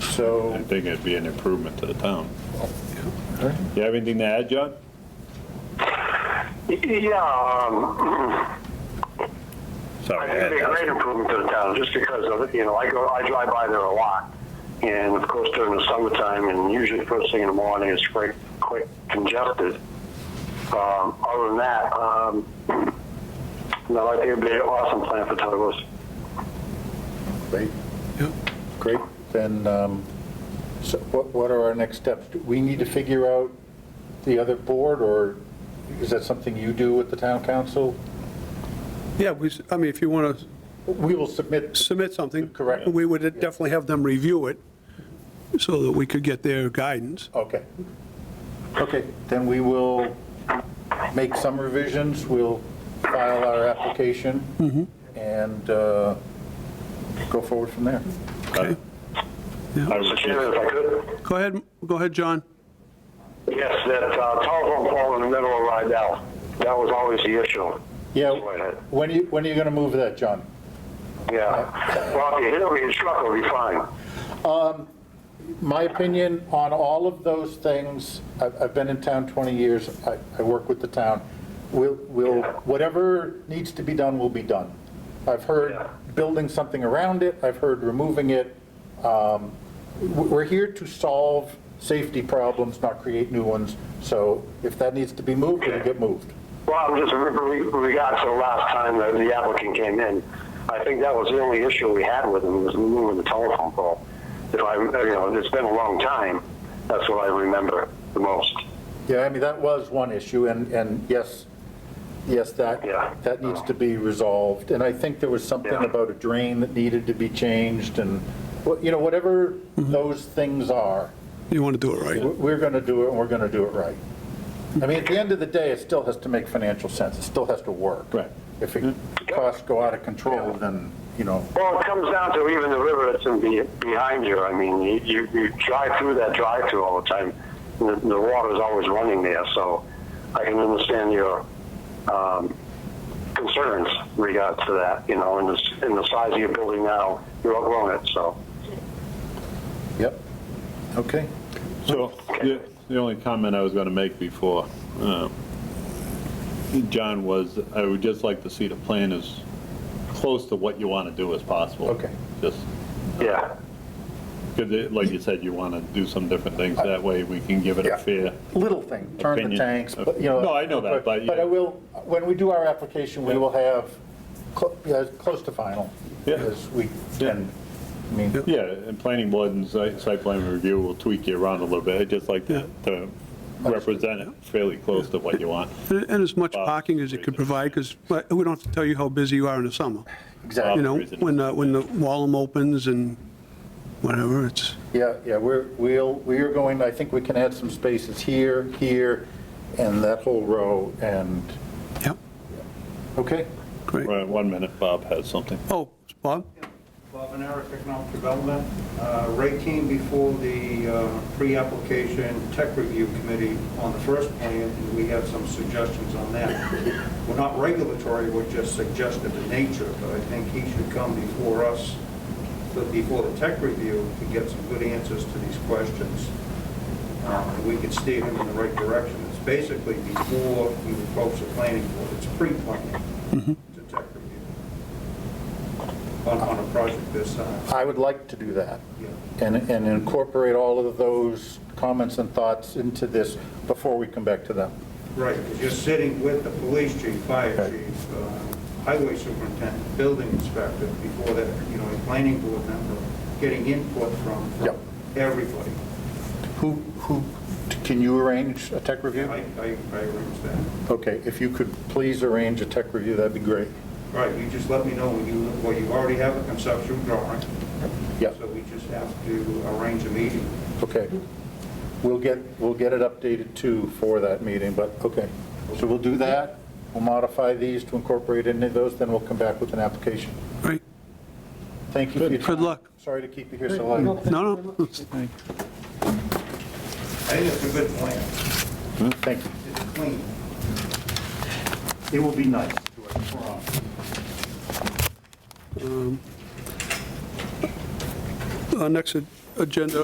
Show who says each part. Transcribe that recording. Speaker 1: So,
Speaker 2: I think it'd be an improvement to the town. You have anything to add, John?
Speaker 3: Yeah, um, I
Speaker 2: Sorry. I
Speaker 3: think it'd be a
Speaker 2: had-
Speaker 3: great improvement to the town, just because of it, you know, I go, I drive by there a lot. And of course during the summertime, and usually first thing in the morning, it's quite, quite congested. Um, other than that, um, no, I think it'd be an awesome plan for Douglas.
Speaker 1: great. Great, then, um, so what, what are our next steps? Do we need to figure out the other board, or is that something you do with the town council?
Speaker 4: Yeah, we, s- I mean, if you want to
Speaker 1: We will submit.
Speaker 4: submit something.
Speaker 1: Correct.
Speaker 4: We would definitely have them review it so that we could get their guidance.
Speaker 1: Okay. Okay, then we will make some revisions, we'll file our application, and uh, go forward from there.
Speaker 2: I- I
Speaker 3: Mr.
Speaker 2: was
Speaker 3: Chairman,
Speaker 2: just-
Speaker 3: if I could,
Speaker 4: Go ahead, go ahead, John.
Speaker 3: yes, that uh, telephone pole in the middle of Rydell, that was always the issue.
Speaker 1: Yeah,
Speaker 3: Go ahead.
Speaker 1: when are you, when are you going to move that, John?
Speaker 3: Yeah, well, if you hit it with your truck, it'll be fine.
Speaker 1: My opinion on all of those things, I've, I've been in town 20 years, I, I work with the town, we'll, we'll, whatever needs to be done will be done. I've heard
Speaker 3: Yeah.
Speaker 1: building something around it, I've heard removing it. Um, w- We're here to solve safety problems, not create new ones, so if that needs to be moved, it'll get moved.
Speaker 3: Well, just re- re- regards to the last time that the applicant came in, I think that was the only issue we had with him, was moving the telephone pole. If I, you know, it's been a long time, that's what I remember the most.
Speaker 1: Yeah, I mean, that was one issue, and, and yes, yes, that,
Speaker 3: Yeah.
Speaker 1: that needs to be resolved. And I think there was something
Speaker 3: Yeah.
Speaker 1: about a drain that needed to be changed, and, wha- you know, whatever those things are,
Speaker 4: You want to do it
Speaker 1: we-
Speaker 4: right.
Speaker 1: we're going to do it, and we're going to do it right. I mean, at the end of the day, it still has to make financial sense, it still has to work.
Speaker 2: Right.
Speaker 1: If it-
Speaker 3: Mm-hmm.
Speaker 1: costs go out of control, then, you know,
Speaker 3: Well, it comes down to even the river that's in be- behind you. I mean, you, you, you drive through that drive-through all the time. and The, the water's always running there, so I can understand your um, concerns regards to that. You know, and the, s- and the size of your building now, you're outgrowing it. So,
Speaker 1: yep, okay.
Speaker 2: So, the the only comment I was going to make before, uh, John, was I would just like to see the plan as close to what you want to do as possible.
Speaker 1: Okay.
Speaker 2: Just,
Speaker 3: yeah.
Speaker 2: because like you said, you want to do some different things, that way we can give it
Speaker 1: Yeah.
Speaker 2: a fair.
Speaker 1: little thing, turn the
Speaker 2: Opinion.
Speaker 1: tanks, but, you know.
Speaker 2: No, I know that, but,
Speaker 1: But I will, when we do our application, we
Speaker 2: Yeah.
Speaker 1: will have, cl- yeah, close to final,
Speaker 2: Yeah.
Speaker 1: as we
Speaker 2: Yeah.
Speaker 1: can, I mean,
Speaker 2: Yeah, and planning board and site site plan review will tweak you around a little bit, I'd just like to to represent it fairly close to what you want.
Speaker 4: And and as much parking as it could provide, because we don't have to tell you how busy you are in the summer. You
Speaker 1: exactly,
Speaker 4: know, when, uh, when the Wallem opens and whatever, it's,
Speaker 1: yeah, yeah, we're, we'll, we are going, I think we can add some spaces here, here, and that whole row, and,
Speaker 4: yep,
Speaker 1: okay?
Speaker 4: great.
Speaker 2: Right, One minute, Bob has something.
Speaker 4: Oh, Bob?
Speaker 5: Bob and Eric, Economic Development. Uh, Ray came before the uh, pre-application tech review committee on the first plan, and we have some suggestions on that. We're not regulatory, we're just suggestive in nature, but I think he should come before us, so before the tech review, to get some good answers to these questions. Uh, We could steer him in the right direction. It's basically before we approach the planning board, it's pre-planning to tech review on on a project this size.
Speaker 1: I would like to do that,
Speaker 5: Yeah.
Speaker 1: and, and incorporate all of those comments and thoughts into this before we come back to them.
Speaker 5: Right, because you're sitting with the police chief, fire
Speaker 1: Okay.
Speaker 5: chief, uh, highway superintendent, building inspector, before that, you know, a planning board member, getting input from from
Speaker 1: Yep.
Speaker 5: everybody.
Speaker 1: Who, who, can you arrange a tech review?
Speaker 5: I, I I arrange that.
Speaker 1: Okay, if you could please arrange a tech review, that'd be great.
Speaker 5: All right, you just let me know when you, well, you already have a conceptual drawing.
Speaker 1: Yeah.
Speaker 5: So we just have to arrange a meeting.
Speaker 1: Okay. We'll get, we'll get it updated too for that meeting, but, okay. So we'll do that, we'll modify these to incorporate any of those, then we'll come back with an application.
Speaker 4: Great.
Speaker 1: Thank you for your time.
Speaker 4: Good luck.
Speaker 1: Sorry to keep you here so long.
Speaker 4: No, no,
Speaker 5: I think it's a good plan.
Speaker 1: Thank you.
Speaker 5: It's clean.
Speaker 1: It will be nice.
Speaker 4: Our Uh, next a- agenda